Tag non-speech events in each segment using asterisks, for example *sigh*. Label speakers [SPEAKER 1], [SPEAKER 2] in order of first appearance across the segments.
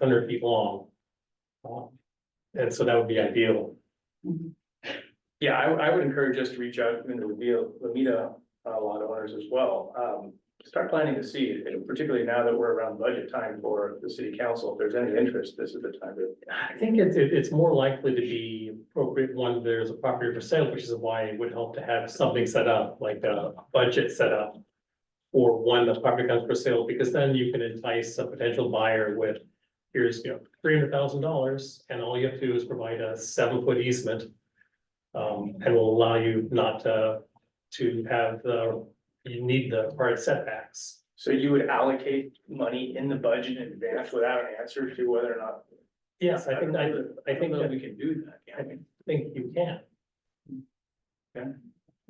[SPEAKER 1] hundred feet long. Um, And so that would be ideal.
[SPEAKER 2] Mhm.
[SPEAKER 1] Yeah, I, would- I would encourage us to reach out and to reveal, Lamita, uh, lot owners as well. Um, start planning to see, and particularly now that we're around budget time for the city council, if there's any interest, this is the time to.
[SPEAKER 3] I think it's, it- it's more likely to be appropriate when there's a property for sale, which is why it would help to have something set up, like a budget set up. for when the property comes for sale, because then you can entice a potential buyer with, here's, you know, three hundred thousand dollars, and all you have to do is provide a seven foot easement. Um, and will allow you not to, to have the, you need the required setbacks.
[SPEAKER 1] So you would allocate money in the budget in advance without an answer to whether or not.
[SPEAKER 3] Yes, I think, I, I
[SPEAKER 1] don't
[SPEAKER 3] think,
[SPEAKER 1] know
[SPEAKER 3] I
[SPEAKER 1] that we can do that. can we?
[SPEAKER 3] think you can.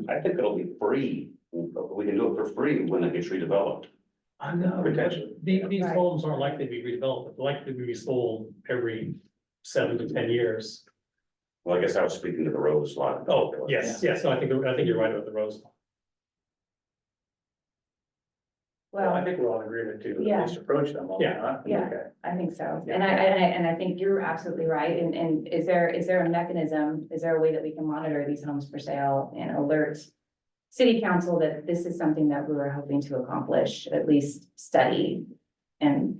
[SPEAKER 4] I think it'll be free, we can do it for free when it gets redeveloped.
[SPEAKER 3] I know.
[SPEAKER 1] Potentially.
[SPEAKER 3] These, these
[SPEAKER 2] Right.
[SPEAKER 3] homes aren't likely to be redeveloped, They're likely to be sold every seven to ten years.
[SPEAKER 4] Well, I guess I was speaking to the road slot.
[SPEAKER 3] Oh, yes, yes, no, I think, I think you're right about the Rose.
[SPEAKER 1] Well, I
[SPEAKER 2] Well,
[SPEAKER 1] think we're all in agreement to at
[SPEAKER 2] Yeah.
[SPEAKER 1] least approach them all.
[SPEAKER 3] Yeah.
[SPEAKER 1] huh?
[SPEAKER 2] Yeah.
[SPEAKER 1] Okay.
[SPEAKER 2] I think so.
[SPEAKER 1] Yeah.
[SPEAKER 2] And I, and I, and I think you're absolutely right. And, and is there, is there a mechanism? Is there a way that we can monitor these homes for sale and alert city council that this is something that we were hoping to accomplish, at least study and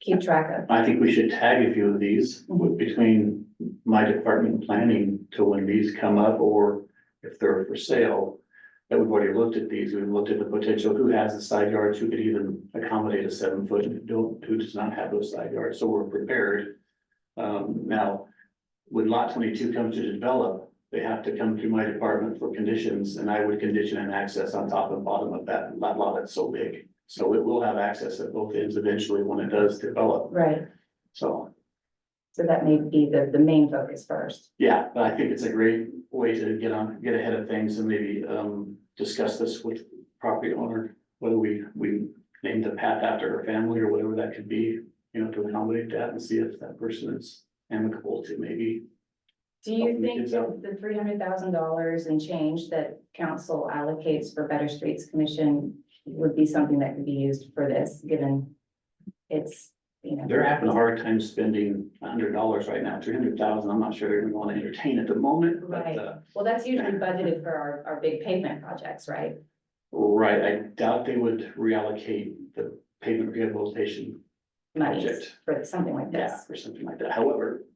[SPEAKER 2] keep track of?
[SPEAKER 5] I think we should tag a few of these with- between my department planning to when these come up or if they're for sale. That we've already looked at these, we've looked at the potential, who has the side yards, who could even accommodate a seven foot, and don't, who does not have those side yards, so we're prepared. Um, now, when lot twenty-two comes to develop, they have to come through my department for conditions and I would condition an access on top and bottom of that, that lot that's so big. So it will have access at both ends eventually when it does develop.
[SPEAKER 2] Right.
[SPEAKER 5] So,
[SPEAKER 2] So that may be the, the main focus first.
[SPEAKER 5] yeah, but I think it's a great way to get on, get ahead of things and maybe um discuss this with property owner. Whether we we name the path after her family or whatever that could be, you know, to accommodate that and see if that person is amicable to maybe.
[SPEAKER 2] Do you
[SPEAKER 5] Open the
[SPEAKER 2] think
[SPEAKER 5] kids up.
[SPEAKER 2] that the three hundred thousand dollars and change that council allocates for Better Streets Commission would be something that could be used for this, given it's, you know,
[SPEAKER 5] They're having a hard time spending a hundred dollars right now, three hundred thousand. I'm not sure they're gonna want to entertain at the moment, but
[SPEAKER 2] Right.
[SPEAKER 5] uh.
[SPEAKER 2] well, that's usually budgeted for our, our big pavement projects, right?
[SPEAKER 5] Right, I doubt they would reallocate the pavement rehabilitation
[SPEAKER 2] Monies
[SPEAKER 5] Project.
[SPEAKER 2] for something like
[SPEAKER 5] yeah,
[SPEAKER 2] this.
[SPEAKER 5] or something like that. However,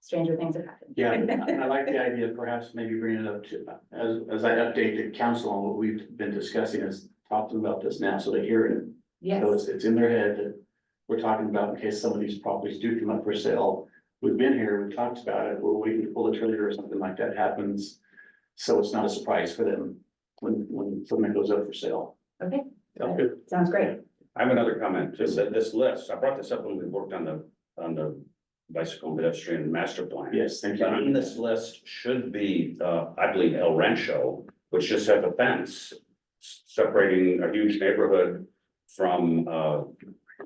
[SPEAKER 2] Stranger things have happened.
[SPEAKER 5] Yeah, I I
[SPEAKER 2] *laughs*
[SPEAKER 5] like the idea of perhaps maybe bringing it up to, as, as I update the council on what we've been discussing, is talk to them about this now, so they hear it.
[SPEAKER 2] Yes,
[SPEAKER 5] So it's, it's in their head that we're talking about in case some of these properties do come up for sale. We've been here, we've talked about it, we're waiting to pull the trigger or something like that happens. So it's not a surprise for them when, when something goes up for sale.
[SPEAKER 2] okay,
[SPEAKER 1] Sounds good.
[SPEAKER 2] sounds great.
[SPEAKER 4] I have another comment, just that this list, I brought this up when we worked on the, on the bicycle and pedestrian master plan.
[SPEAKER 5] Yes, thank you.
[SPEAKER 4] But on this list should be, uh, I believe El Rancho, which just has a fence separating a huge neighborhood from, uh,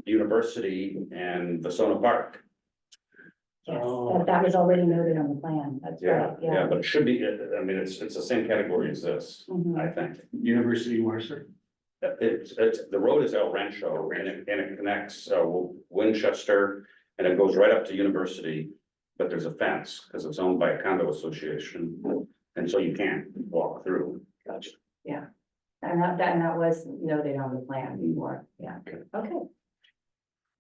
[SPEAKER 4] University and Vasona Park.
[SPEAKER 2] Yes,
[SPEAKER 3] Oh.
[SPEAKER 2] that, that was already noted on the plan, that's right,
[SPEAKER 4] Yeah, yeah,
[SPEAKER 2] yeah.
[SPEAKER 4] but it should be, I mean, it's, it's the same category as this,
[SPEAKER 2] Mhm.
[SPEAKER 4] I think.
[SPEAKER 5] University of Mercer.
[SPEAKER 4] It's, it's, the road is El Rancho and it, and it connects uh, Winchester and it goes right up to University. But there's a fence because it's owned by a condo association and so you can't walk through.
[SPEAKER 5] Gotcha.
[SPEAKER 2] And that, that, and that was noted on the plan before, yeah, okay.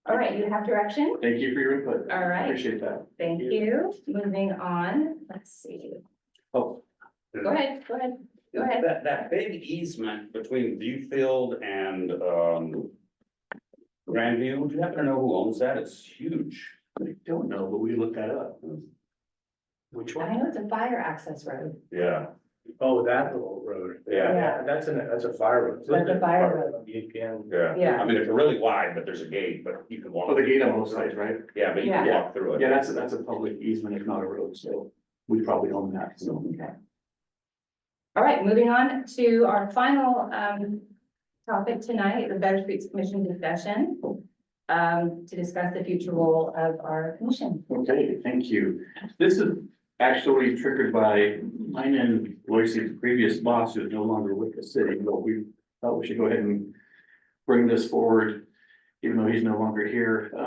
[SPEAKER 2] All right, you have direction?
[SPEAKER 5] Thank you for your input.
[SPEAKER 2] All right.
[SPEAKER 5] Appreciate that.
[SPEAKER 2] Thank you. Moving on, let's see.
[SPEAKER 5] Oh.
[SPEAKER 2] Go ahead, go ahead, go ahead.
[SPEAKER 4] That, that big easement between Viewfield and, um. Grandview, do you happen to know who owns that? It's huge.
[SPEAKER 5] I don't know, but we looked that up.
[SPEAKER 1] Which
[SPEAKER 2] I know it's a fire access road.
[SPEAKER 4] Yeah,
[SPEAKER 1] Oh, that little road.
[SPEAKER 4] yeah,
[SPEAKER 2] Yeah.
[SPEAKER 1] That's an, that's a fire road. E
[SPEAKER 2] That's a fire road.
[SPEAKER 1] VPN.
[SPEAKER 4] yeah.
[SPEAKER 2] Yeah.
[SPEAKER 4] I mean, it's really wide, but there's a gate, but you can walk.
[SPEAKER 5] Oh, the gate on both sides, right?
[SPEAKER 4] Yeah, but you can walk through it.
[SPEAKER 5] Yeah, that's, a- that's a public easement, if not a road, so we probably own that, so.
[SPEAKER 2] Okay. All right, moving on to our final um topic tonight, the Better Streets Commission discussion. Um, to discuss the future role of our commission.
[SPEAKER 5] Okay, thank you. This is actually triggered by mine and Lois's previous boss who's no longer with the city, but we thought we should go ahead and bring this forward, even though he's no longer here.